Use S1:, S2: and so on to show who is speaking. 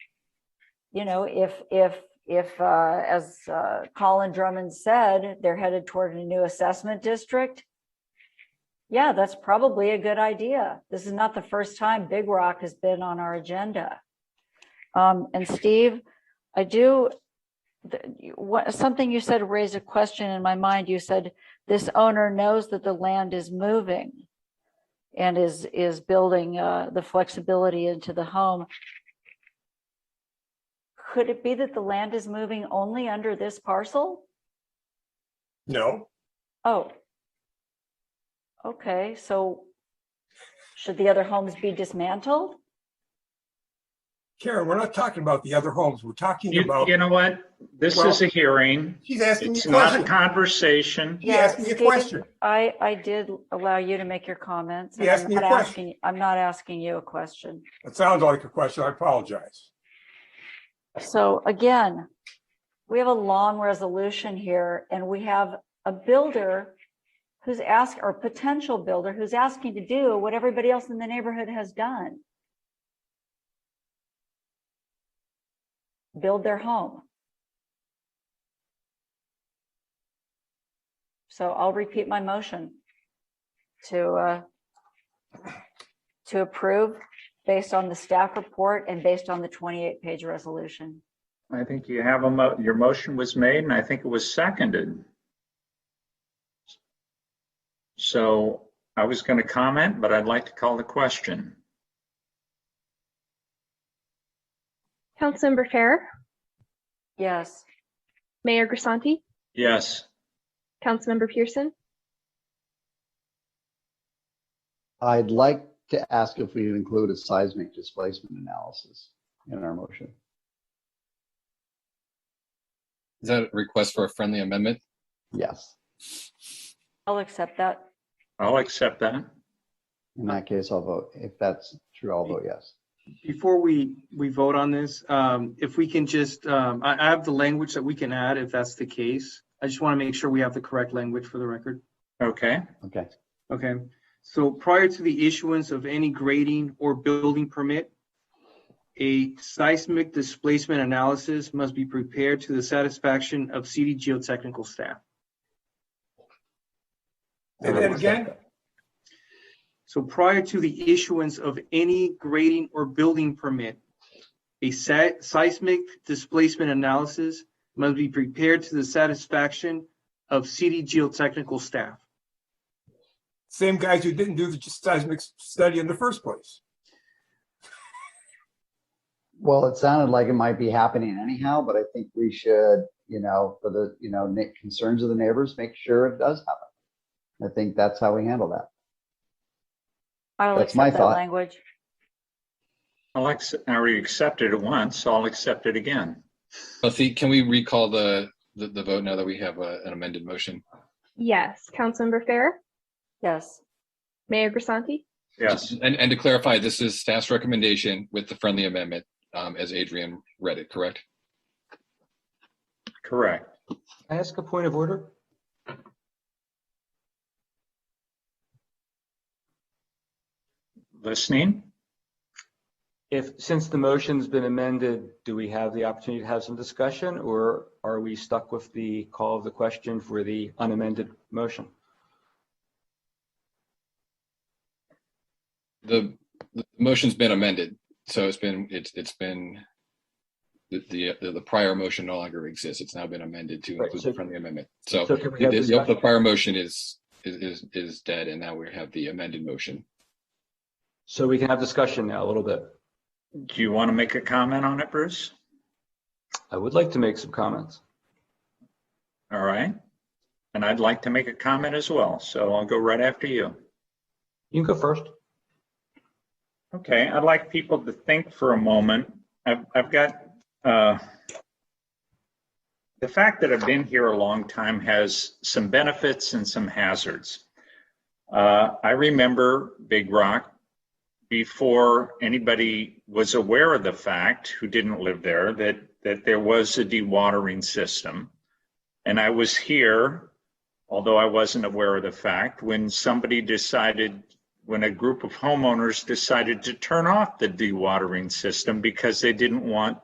S1: you know, if, if, if, uh, as, uh, Colin Drummond said, they're headed toward a new assessment district. Yeah, that's probably a good idea. This is not the first time Big Rock has been on our agenda. Um, and Steve, I do, th- you- what, something you said raised a question in my mind. You said this owner knows that the land is moving and is, is building, uh, the flexibility into the home. Could it be that the land is moving only under this parcel?
S2: No,
S1: Oh. Okay, so should the other homes be dismantled?
S2: Karen, we're not talking about the other homes. We're talking
S3: You,
S2: about,
S3: you know what? This
S2: Well-
S3: is a hearing.
S2: she's asking me
S3: It's
S2: a
S3: not a
S2: question.
S3: conversation.
S2: She asked me a
S1: Stephen,
S2: question.
S1: I, I did allow you to make your comments. and
S2: You
S1: I'm
S2: asked me a
S1: not
S2: question.
S1: asking- I'm not asking you a question.
S2: It sounds like a question. I apologize.
S1: So again, we have a long resolution here and we have a builder who's asked, or potential builder who's asking to do what everybody else in the neighborhood has done. Build their home. So I'll repeat my motion to, uh, to approve based on the staff report and based on the 28-page resolution.
S3: I think you have a mo, your motion was made and I think it was seconded. So I was going to comment, but I'd like to call the question.
S4: Councilmember Fair,
S1: Yes,
S4: Mayor Grisanti,
S3: Yes,
S4: Councilmember Pearson,
S5: I'd like to ask if we include a seismic displacement analysis in our motion.
S6: Is that a request for a friendly amendment?
S5: Yes,
S1: I'll accept that.
S3: I'll accept that.
S5: in that case, I'll vote. If that's true, I'll vote yes.
S7: Before we, we vote on this, um, if we can just, um, I, I have the language that we can add if that's the case. I just want to make sure we have the correct language for the record.
S3: Okay,
S5: Okay,
S7: Okay, so prior to the issuance of any grading or building permit, a seismic displacement analysis must be prepared to the satisfaction of CD geotechnical staff.
S2: Say that again?
S7: So prior to the issuance of any grading or building permit, a se- seismic displacement analysis must be prepared to the satisfaction of CD geotechnical staff.
S2: Same guys who didn't do the seismic study in the first place.
S5: well, it sounded like it might be happening anyhow, but I think we should, you know, for the, you know, na- concerns of the neighbors, make sure it does happen. I think that's how we handle that.
S1: I'll
S5: That's my
S1: accept that
S5: thought.
S1: language.
S3: I'll, ac- I already accepted it once, so I'll accept it again.
S6: Buffy, can we recall the, the, the vote now that we have a- an amended motion?
S4: yes. Councilmember Fair,
S1: Yes,
S4: Mayor Grisanti,
S3: Yes,
S6: And, and to clarify, this is staff's recommendation with the friendly amendment, um, as Adrian read it, correct?
S3: correct.
S8: Can I ask a point of order?
S3: Listening?
S8: If, since the motion's been amended, do we have the opportunity to have some discussion or are we stuck with the call of the question for the unamended motion?
S6: The, the motion's been amended, so it's been, it's, it's been, the, the, the prior motion no longer exists. It's now been amended to
S8: Right,
S6: include
S8: so-
S6: the friendly amendment. So
S8: So can we
S6: the,
S8: have
S6: the the
S8: discussion?
S6: prior motion is, is, is- is dead and now we have the amended motion.
S8: So we can have discussion now a little bit.
S3: Do you want to make a comment on it, Bruce?
S8: I would like to make some comments.
S3: All right. And I'd like to make a comment as well, so I'll go right after you.
S8: You can go first.
S3: Okay, I'd like people to think for a moment. I've, I've got, uh, the fact that I've been here a long time has some benefits and some hazards. Uh, I remember Big Rock before anybody was aware of the fact who didn't live there that, that there was a dewatering system. And I was here, although I wasn't aware of the fact, when somebody decided when a group of homeowners decided to turn off the dewatering system because they didn't want